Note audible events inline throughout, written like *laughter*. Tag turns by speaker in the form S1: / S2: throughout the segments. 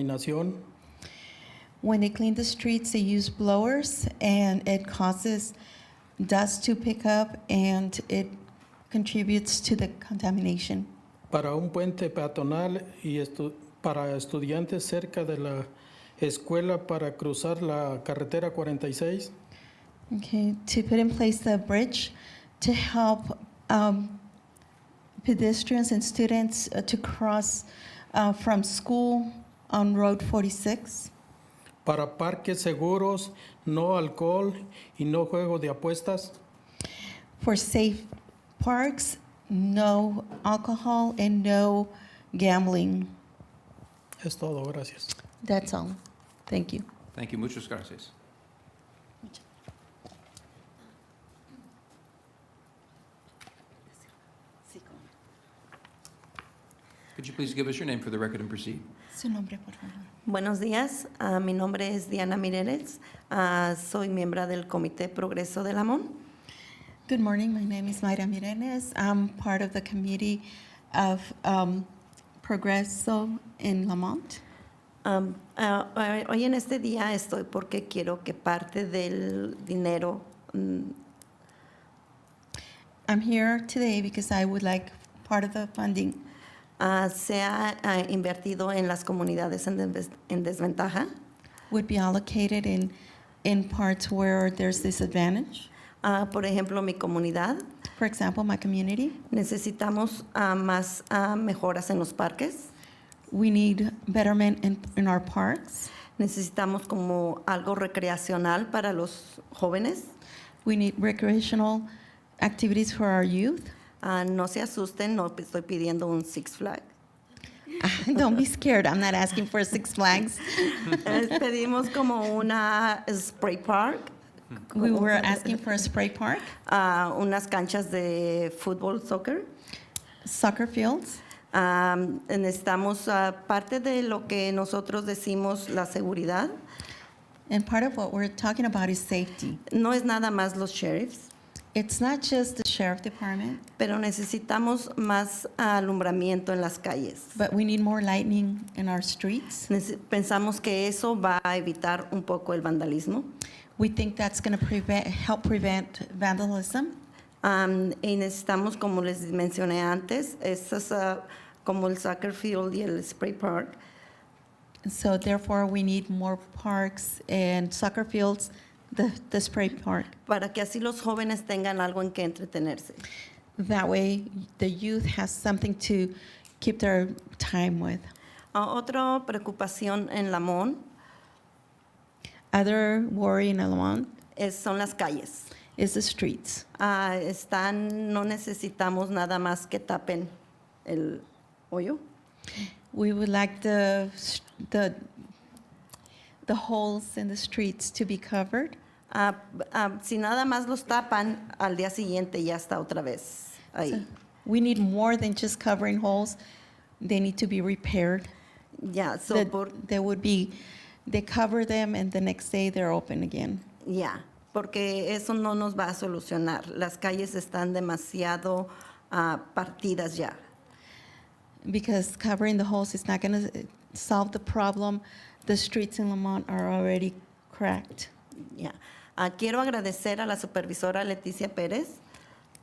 S1: contaminación,
S2: When they clean the streets, they use blowers and it causes dust to pick up and it contributes to the contamination.
S1: para un puente peatonal y estu- para estudiantes cerca de la escuela para cruzar la carretera 46,
S2: Okay, to put in place the bridge to help um, pedestrians and students uh, to cross uh, from school on Road 46,
S1: para parques seguros, no alcohol y no juego de apuestas,
S2: for safe parks, no alcohol and no gambling.
S1: es todo, gracias.
S2: That's all. Thank you.
S3: Thank you. Muchas gracias. Could you please give us your name for the record and proceed?
S2: Su nombre, por favor.
S4: Buenos días, ah, mi nombre es Diana Mireles, ah, soy miembro del Comité Progreso del Amón.
S2: Good morning. My name is Mayra Mirenes. I'm part of the committee of um, Progreso in Lamont.
S4: Am, ah, ah, hoy en este día estoy porque quiero que parte del dinero, mm,
S2: I'm here today because I would like part of the funding
S4: ah, sea ah, invertido en las comunidades en, desves- en desventaja,
S2: would be allocated in in parts where there's disadvantage.
S4: Ah, por ejemplo mi comunidad.
S2: For example, my community,
S4: Necesitamos ah, más ah, mejoras en los parques,
S2: we need betterment in, in our parks.
S4: necesitamos como algo recreacional para los jóvenes.
S2: We need recreational activities for our youth. *laughs*
S4: Ah, no se asusten, no estoy pidiendo un Six Flag.
S2: Don't be scared. I'm not asking for Six Flags. *laughs*
S4: Eh, Pedimos como una spray park,
S2: We were asking for a spray park,
S4: ah, unas canchas de fútbol, soccer.
S2: soccer fields.
S4: Ah, necesitamos ah, parte de lo que nosotros decimos la seguridad.
S2: And part of what we're talking about is safety.
S4: No es nada más los sheriffs,
S2: It's not just the sheriff department,
S4: pero necesitamos más alumbramiento en las calles.
S2: but we need more lightning in our streets.
S4: Nece- Pensamos que eso va a evitar un poco el vandalismo.
S2: We think that's going to prevent, help prevent vandalism.
S4: Ah, y necesitamos, como les mencioné antes, estas, ah, como el soccer field y el spray park,
S2: And so therefore, we need more parks and soccer fields, the, the spray park.
S4: para que así los jóvenes tengan algo en que entretenerse.
S2: That way, the youth has something to keep their time with.
S4: Ah, otra preocupación en Lamón
S2: Other worry in Alajuan
S4: es, son las calles.
S2: is the streets.
S4: Ah, están, no necesitamos nada más que tapen el hoyo.
S2: We would like the, s- the, the holes in the streets to be covered.
S4: Ah, ah, si nada más los tapan, al día siguiente ya está otra vez
S2: So
S4: ahí.
S2: We need more than just covering holes. They need to be repaired.
S4: Ya, so
S2: That
S4: por-
S2: They would be, they cover them and the next day they're open again.
S4: ya, porque eso no nos va a solucionar. Las calles están demasiado ah, partidas ya.
S2: Because covering the holes is not going to solve the problem. The streets in Lamont are already cracked.
S4: ya. Ah, quiero agradecer a la supervisora Leticia Pérez,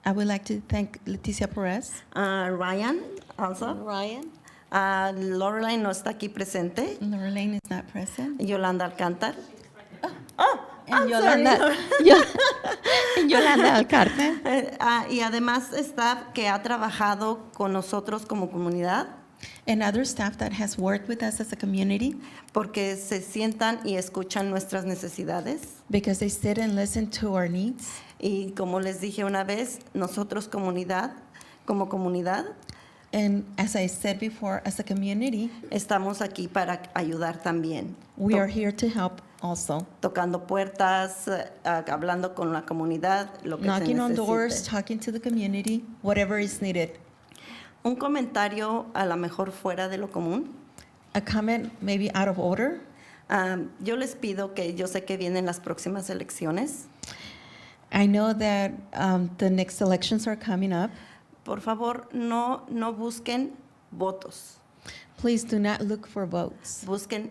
S2: I would like to thank Leticia Perez,
S4: a ah, Ryan, also.
S2: Ryan.
S4: Ah, Lorelai no está aquí presente.
S2: Lorraine is not present.
S4: Yolanda Alcántar. *laughs*
S2: And
S4: I'm
S2: Yolanda, *laughs* Yo- and *laughs* Yolanda Alcarte.
S4: Eh, ah, y además staff que ha trabajado con nosotros como comunidad
S2: And other staff that has worked with us as a community
S4: porque se sientan y escuchan nuestras necesidades.
S2: because they sit and listen to our needs.
S4: Y como les dije una vez, nosotros comunidad, como comunidad,
S2: And as I said before, as a community,
S4: estamos aquí para ayudar también,
S2: we are here to help also.
S4: tocando puertas, eh, ah, hablando con la comunidad, lo que se
S2: Knocking on doors,
S4: necesite.
S2: talking to the community, whatever is needed.
S4: Un comentario a lo mejor fuera de lo común.
S2: A comment maybe out of order.
S4: Am, yo les pido que yo sé que vienen las próximas elecciones.
S2: I know that um, the next elections are coming up.
S4: Por favor, no, no busquen votos.
S5: Please do not look for votes.
S2: Busquen